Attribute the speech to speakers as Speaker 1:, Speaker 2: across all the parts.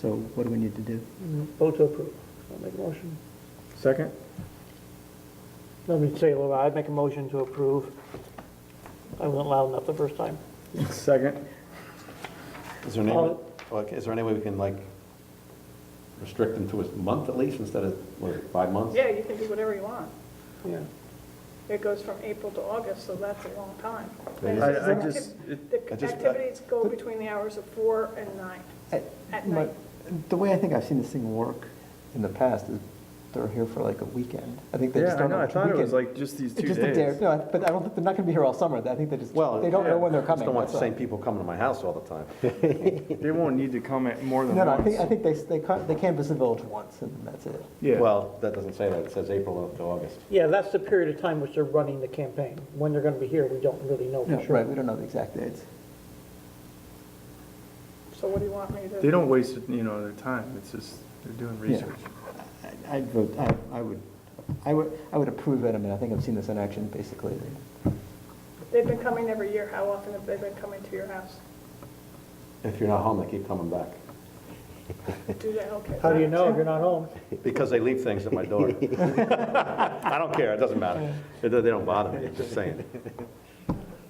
Speaker 1: So what do we need to do?
Speaker 2: Vote to approve. I'll make a motion.
Speaker 3: Second?
Speaker 2: Let me say, Laura, I'd make a motion to approve. I wasn't loud enough the first time.
Speaker 3: Second?
Speaker 4: Is there any,
Speaker 2: Uh,
Speaker 4: okay, is there any way we can like restrict them to a month at least instead of, what, five months?
Speaker 5: Yeah, you can do whatever you want.
Speaker 2: Yeah.
Speaker 5: It goes from April to August, so that's a long time.
Speaker 4: It is.
Speaker 3: I, I just, it-
Speaker 5: The
Speaker 4: I just-
Speaker 5: activities go between the hours of four and nine.
Speaker 1: I-
Speaker 5: At
Speaker 1: my-
Speaker 5: night.
Speaker 1: The way I think I've seen this thing work in the past is they're here for like a weekend. I think they
Speaker 3: yeah,
Speaker 1: just
Speaker 3: I
Speaker 1: don't
Speaker 3: know,
Speaker 1: know
Speaker 3: I
Speaker 1: which
Speaker 3: thought it was
Speaker 1: weekend.
Speaker 3: like just these
Speaker 1: It's
Speaker 3: two
Speaker 1: just that they're-
Speaker 3: days.
Speaker 1: No, I- but I don't, think they're not going to be here all summer. I think they just,
Speaker 4: Well,
Speaker 1: they don't know
Speaker 3: yeah,
Speaker 1: when they're
Speaker 4: Just
Speaker 1: coming.
Speaker 4: don't want the
Speaker 1: that's all.
Speaker 4: same people coming to my house all the time.
Speaker 3: They won't need to come at more than
Speaker 1: No, no, I think, I
Speaker 3: once.
Speaker 1: think they, they ca- they canvass the village once and that's it.
Speaker 3: Yeah,
Speaker 4: Well, that doesn't say that, it says April to August.
Speaker 2: Yeah, that's the period of time which they're running the campaign. When they're going to be here, we don't really know for sure.
Speaker 1: Right, we don't know the exact dates.
Speaker 5: So what do you want me to?
Speaker 3: they don't waste, you know, their time, it's just, they're doing research.
Speaker 1: I- I'd vote, I, I would, I would, I would approve it. I mean, I think I've seen this in action basically.
Speaker 5: They've been coming every year. How often have they been coming to your house?
Speaker 4: If you're not home, they keep coming back.
Speaker 5: Do they, okay.
Speaker 2: How do you know if you're not home?
Speaker 4: Because they leave things at my door. I don't care, it doesn't matter. It do- They don't bother me, I'm just saying.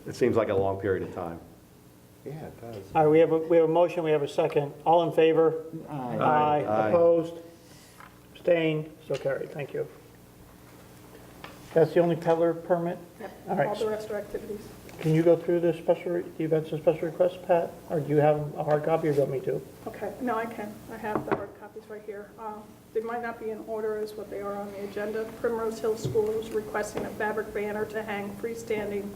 Speaker 4: It seems like a long period of time.
Speaker 6: Yeah, it does.
Speaker 2: All right, we have, a we have a motion, we have a second. All in favor? Aye.
Speaker 4: Aye.
Speaker 2: Opposed? Abstained? So carried, thank you. That's the only peddler permit? All
Speaker 5: All
Speaker 2: right,
Speaker 5: the rest are activities.
Speaker 2: can you go through the special, re- the events and special requests, Pat? Or do you have a hard copy or do you want me to?
Speaker 5: Okay, no, I can. I have the hard copies right here. Um, They might not be in order as what they are on the agenda. Primrose Hill School is requesting a fabric banner to hang freestanding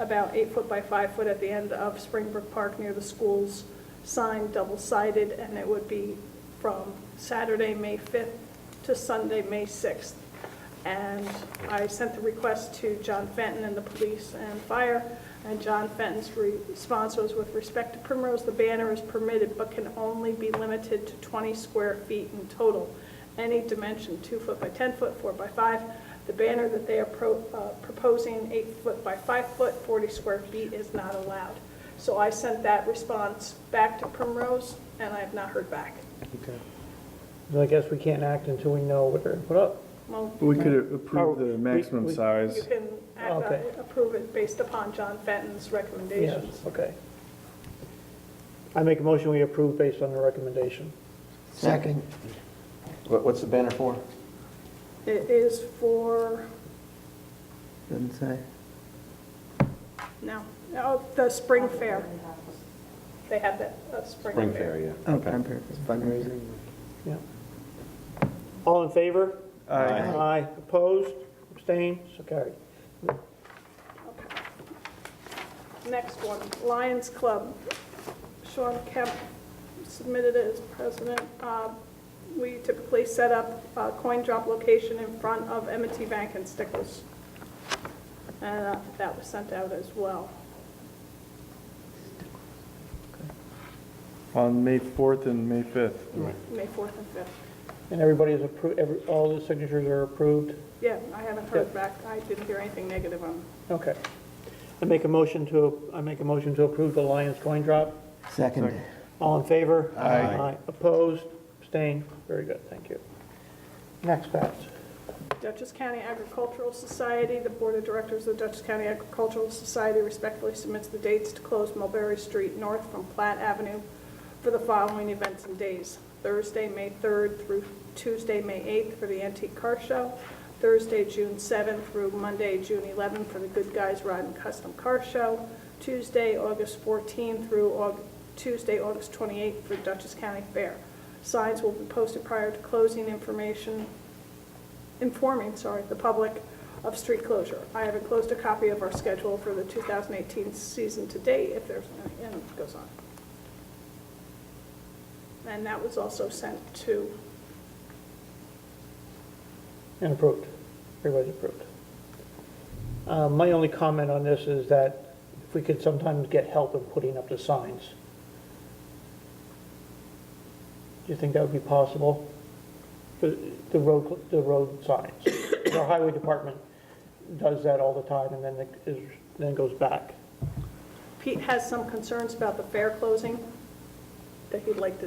Speaker 5: about eight foot by five foot at the end of Springbrook Park near the school's sign, double-sided, and it would be from Saturday, May 5th to Sunday, May 6th. And I sent the request to John Fenton and the police and fire, and John Fenton's response was, with respect to Primrose, the banner is permitted but can only be limited to 20 square feet in total. Any dimension, 2 foot by 10 foot, 4 by 5. The banner that they are pro- uh, proposing, 8 foot by 5 foot, 40 square feet, is not allowed. So I sent that response back to Primrose, and I have not heard back.
Speaker 2: Well, I guess we can't act until we know what they're, what up?
Speaker 5: Well,
Speaker 3: But we could approve
Speaker 2: Oh, we-
Speaker 3: the maximum
Speaker 2: we-
Speaker 5: You
Speaker 3: size.
Speaker 5: can act on
Speaker 2: Okay.
Speaker 5: it, approve it based upon John Fenton's
Speaker 2: Yes,
Speaker 5: recommendations.
Speaker 2: okay. I make a motion, we approve based on the recommendation.
Speaker 1: Second.
Speaker 4: What- What's the banner for?
Speaker 5: It is for,
Speaker 1: Doesn't say.
Speaker 5: no, oh, the spring fair. They have that, uh, spring fair.
Speaker 4: Spring Fair, yeah.
Speaker 1: Oh, I'm paraphrasing. Fundraising.
Speaker 2: Yeah. All in favor?
Speaker 3: Aye.
Speaker 2: Aye. Opposed? Abstained? So carried.
Speaker 5: Next one, Lions Club. Sean Kemp submitted it as president. Uh, We typically set up a coin drop location in front of m and t Bank and Stickles. And uh, that was sent out as well.
Speaker 3: On May 4th and May 5th.
Speaker 5: May 4th and 5th.
Speaker 2: And everybody is approved, every, all the signatures are approved?
Speaker 5: Yeah, I haven't heard back, I didn't hear anything negative on it.
Speaker 2: Okay. I make a motion to, I make a motion to approve the Lions coin drop.
Speaker 1: Second.
Speaker 2: All in favor?
Speaker 3: Aye.
Speaker 2: Opposed? Abstained? Very good, thank you. Next, Pat.
Speaker 5: Dutchess County Agricultural Society, the Board of Directors of the Dutchess County Agricultural Society respectfully submits the dates to close Mulberry Street North from Platt Avenue for the following events and days. Thursday, May 3rd through Tuesday, May 8th for the Antique Car Show. Thursday, June 7th through Monday, June 11th for the Good Guys Ride and Custom Car Show. Tuesday, August 14th through Aug- Tuesday, August 28th for Dutchess County Fair. Signs will be posted prior to closing information informing, sorry, the public of street closure. I have enclosed a copy of our schedule for the 2018 season to date, if there's, any and it goes on. And that was also sent to,
Speaker 2: And approved. Everybody's approved. Uh, My only comment on this is that if we could sometimes get help in putting up the signs. Do you think that would be possible? The the road, the road signs. Our highway department does that all the time and then it is, then goes back.
Speaker 5: Pete has some concerns about the fair closing that he'd like to